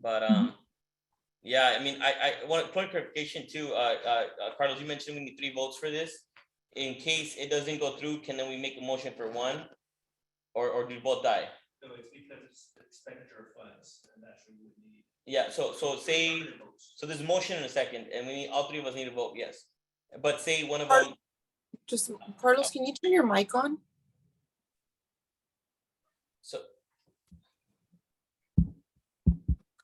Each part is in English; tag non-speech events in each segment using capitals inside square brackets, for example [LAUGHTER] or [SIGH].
But um, yeah, I mean, I, I want point of clarification too, uh, uh, uh, Carlos, you mentioned we need three votes for this. In case it doesn't go through, can then we make a motion for one? Or, or do both die? No, it's because it's expenditure of funds and that's what we would need. Yeah, so, so say, Affirmative votes. so there's a motion and a second, and we need, all three of us need to vote yes. But say one of them, Just, Carlos, can you turn your mic on? so,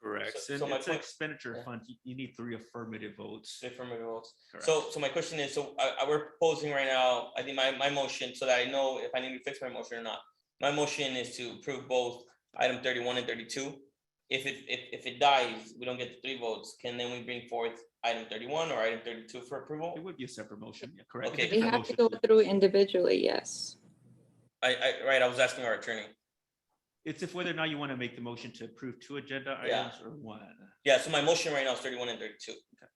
Correct. So- And so my it's an point- expenditure yeah. fund. You- You need three affirmative votes. affirmative votes. Correct. So, so my question is, so I, I, we're proposing right now, I think my, my motion, so that I know if I need to fix my motion or not. My motion is to approve both item thirty-one and thirty-two. If it, if, if it dies, we don't get the three votes, can then we bring forth item thirty-one or item thirty-two for approval? It would be a separate motion. Yeah, correct. It's a Okay. We different have to motion. go through individually, yes. I, I, right, I was asking our attorney. It's if whether or not you want to make the motion to approve two agenda Yeah. items or one. Yeah, so my motion right now is thirty-one and thirty-two.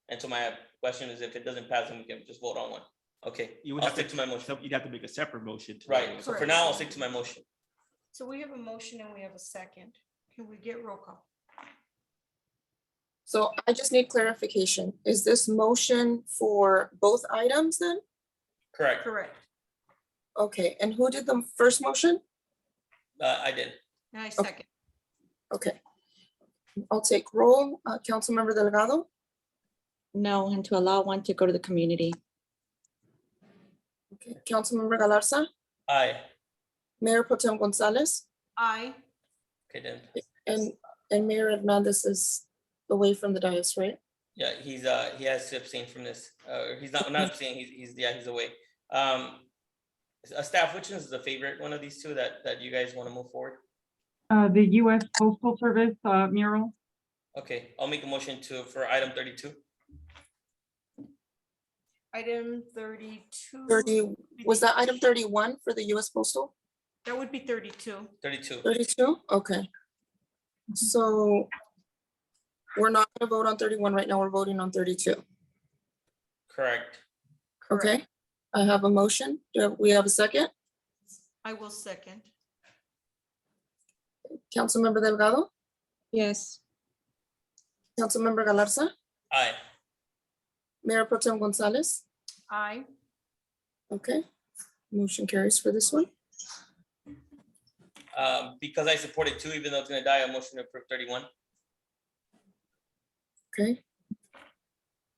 And so my question is if it doesn't pass, then we can just vote on one. Okay, You would I'll have to- stick to my motion. So you'd have to make a separate motion. to- Right, so for Correct. now, I'll stick to my motion. So we have a motion and we have a second. Can we get roll call? So I just need clarification. Is this motion for both items then? Correct, Correct. Okay, and who did the first motion? uh, I did. And I second. Okay. I'll take roll. Uh, Councilmember Delgado, No, and to allow one to go to the community. okay, Councilmember Galarza, Aye, Mayor Potem Gonzalez, Aye. okay then. and, and Mayor Hernandez is away from the dais, right? Yeah, he's uh, he has to abstain from this, uh, he's not, not abstaining, he's, he's, yeah, he's away. Um, s- uh, staff, which is the favorite one of these two that, that you guys wanna move forward? Uh, the US Postal Service uh, mural. Okay, I'll make a motion to, for item thirty-two, Item thirty-two. Thirty, was that item thirty? thirty-one for the US Postal? That would be thirty-two. thirty-two. Thirty-two? Okay. So we're not gonna vote on thirty-one right now. We're voting on thirty-two. Correct, Correct. Okay, I have a motion. Do we have a second? I will second. Councilmember Delgado, Yes. Councilmember Galarza, aye, Mayor Pro Tem Gonzalez. Aye. Okay, motion carries for this one. um, because I supported two, even though it's gonna die, a motion to approve thirty-one, Okay.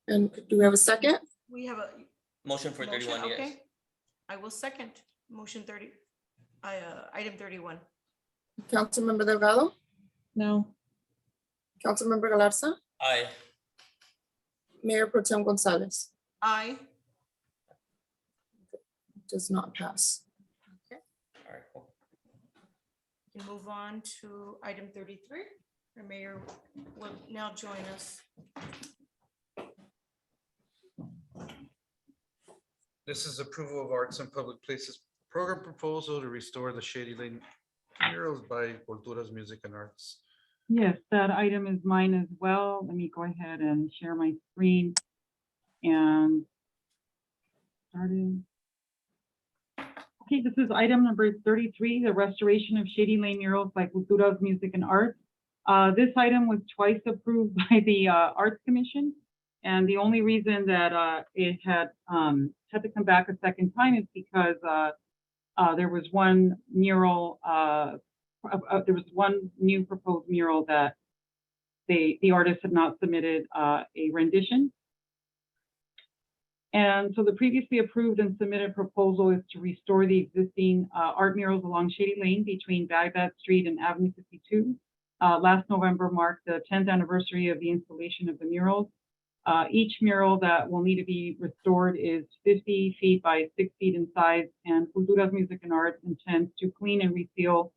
And do we have a second? We have a. motion for motion, thirty-one, yes. okay. I will second. Motion thirty, I, uh, item thirty-one. Councilmember Delgado, No. Councilmember Galarza, Aye, Mayor Pro Tem Gonzalez Aye. does not pass. alright, cool. We Move on to item thirty-three. The mayor will now join us. This is approval of Arts and Public Places Program Proposal to restore the Shady Lane murals by Culturas Music and Arts. Yes, that item is mine as well. Let me go ahead and share my screen. And starting. Okay, this is item number thirty-three, the restoration of Shady Lane murals by Culturas Music and Arts. Uh, this item was twice approved [LAUGHS] by the, uh, Arts Commission. And the only reason that, uh, it had, um, had to come back a second time is because, uh, uh, there was one mural, uh, uh, uh, there was one new proposed mural that they, the artist had not submitted uh, a rendition. And so the previously approved and submitted proposal is to restore the existing uh, art murals along Shady Lane between Baghdad Street and Avenue 52. Uh, Last November marked the 10th anniversary of the installation of the murals. Uh, Each mural that will need to be restored is 50 feet by 6 feet in size, and Culturas Music and Arts intends to clean and reseal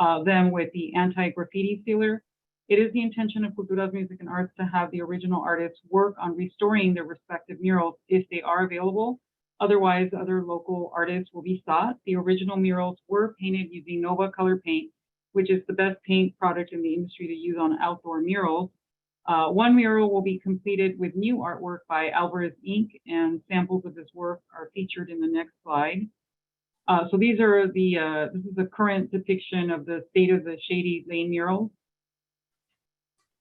uh, them with the anti-graffiti sealer. It is the intention of Culturas Music and Arts to have the original artists work on restoring their respective murals if they are available. Otherwise, other local artists will be sought. The original murals were painted using Nova Color Paint, which is the best paint product in the industry to use on outdoor murals. Uh, one mural will be completed with new artwork by Alvarez Inc., and samples of this work are featured in the next slide. Uh, so these are the, uh, this is the current depiction of the state of the Shady Lane mural.